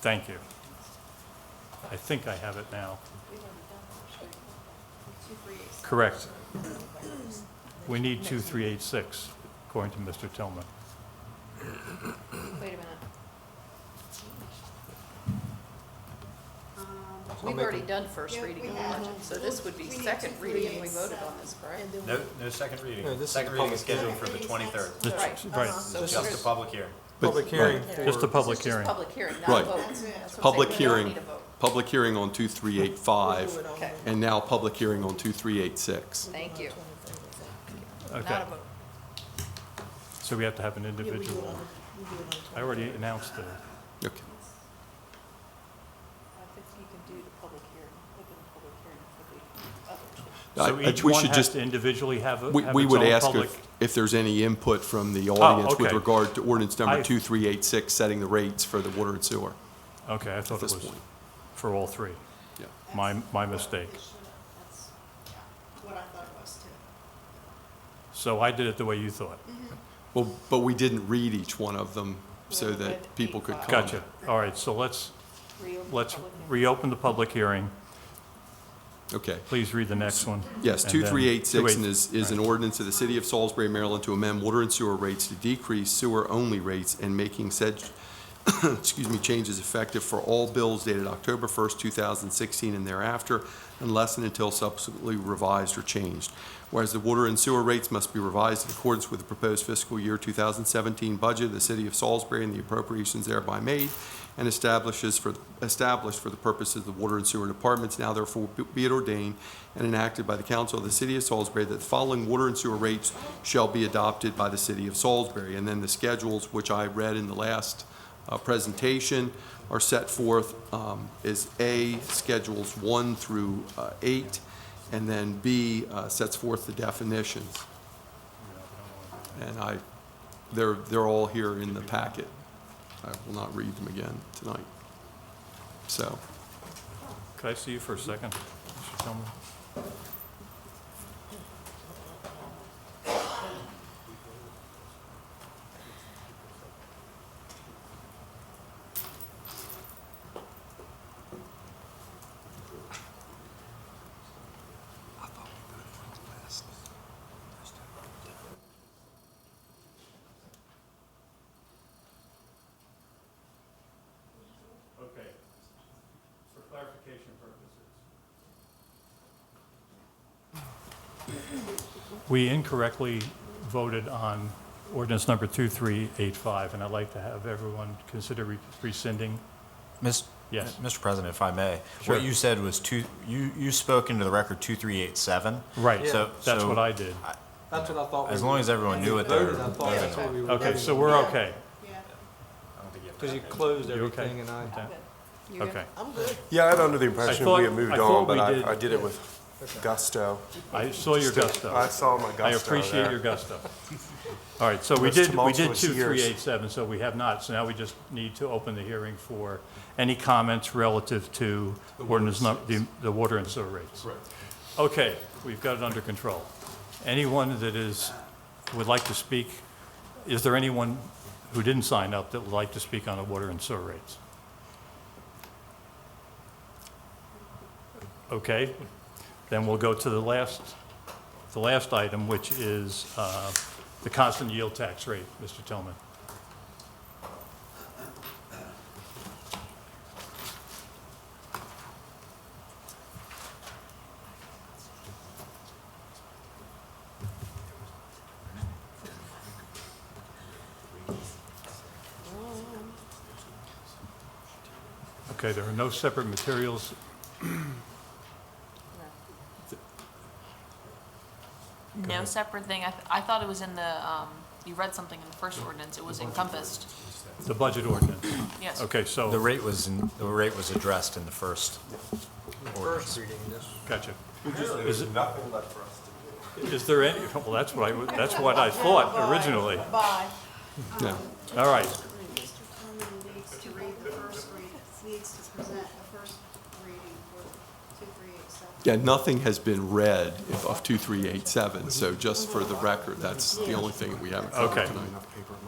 Thank you. I think I have it now. Correct. We need 2386, according to Mr. Tillman. Wait a minute. I'll We've Um, make already a- done first Yeah, reading we of the have. budget, so this would be We need second to reading, and we create voted on some. this, correct? And No, then no second reading. No, this is Second a reading public- is scheduled for the Second reading twenty-third. is It's- Right. Right, So This there's- Just a public hearing. But- Public hearing Right. for. just a public This is hearing. just public hearing, not a Right. vote. That's what I'm saying. Public We don't hearing. need a vote. Public hearing on We'll do 2385, it on Okay. the- and now public hearing on 2386. Thank you. Not Okay, a vote. so we have to have an yeah, we do it individual. on the- we do it on the I already 23rd. announced it. Okay. I think you can do the public hearing, open the public hearing for the other two. So I- each we one should has just- to individually have a- We have we its would own ask public- Oh, if- if there's any input from the audience with okay. regard to ordinance I- number 2386, setting the rates for the water and sewer. Okay, I thought it this was point. for all three. Yeah. My, my mistake. It should have. That's yeah, what I thought it was too. So I did it the way you thought. Well, but we didn't read each one of them so Well, that but people could eight-five. comment. Gotcha. All right, so let's, Reopen the let's public hearing. reopen the public hearing. Okay. Please read the next one. Yes, and then- 2386 and 28 is, is an ordinance of the City of Salisbury, Maryland to amend water and sewer rates to decrease sewer-only rates and making said, excuse me, changes effective for all bills dated October 1st, 2016 and thereafter, unless and until subsequently revised or changed. Whereas the water and sewer rates must be revised in accordance with the proposed fiscal year 2017 budget of the City of Salisbury and the appropriations thereby made, and establishes for, established for the purposes of the Water and Sewer Departments, now therefore be it ordained and enacted by the Council of the City of Salisbury that the following water and sewer rates shall be adopted by the City of Salisbury. And then the schedules, which I read in the last uh, presentation, are set forth um, as A, Schedules 1 through uh, 8, and then B uh, sets forth the definitions. And I, they're, they're all here in the packet. I will not read them again tonight. So, Could I see you for a second, Mr. Tillman? Okay, for clarification purposes. We incorrectly voted on ordinance number 2385, and I'd like to have everyone consider re- rescinding. Mis- Yes. Mr. President, if I may, Sure. what you said was two, you, you spoke into the record 2387. Right, So- that's so what I did. That's what I thought. As long as everyone knew what they Voted, I were. thought that's what we were. Okay, so we're okay. Yeah. Because you closed You okay? everything and I. You good? Okay. I'm good. Yeah, I'd under the impression thought- we had moved I thought on, but we I, did- I did it with gusto. I saw your I gusto. saw my gusto I appreciate there. your gusto. All right, so we Most did, we did tumultuous years. 2387, so we have not. So now we just need to open the hearing for any comments relative to ordinance, num- the the water and sewer rates. Okay, we've got it under control. Anyone that is, would like to speak, is there anyone who didn't sign up that would like to speak on the water and sewer rates? Okay, then we'll go to the last, the last item, which is uh, the constant yield tax rate, Mr. Tillman. Okay, there are no separate materials. No separate thing. I, th- I thought it was in the, um, you read something in the first ordinance. It was encompassed. The budget ordinance. Yes. Okay, so. The rate was, in- the rate was addressed in the first First reading this. Gotcha. Is There's it- nothing left for us to do. Is there any, well, that's what I, w- that's what I thought originally. Bye. yeah. All right, Mr. Tillman needs to read the first read, needs to present the first reading for two, three, eight, seven. Yeah, nothing has been read of 2387, so just for the record, that's the only thing we haven't covered okay. tonight.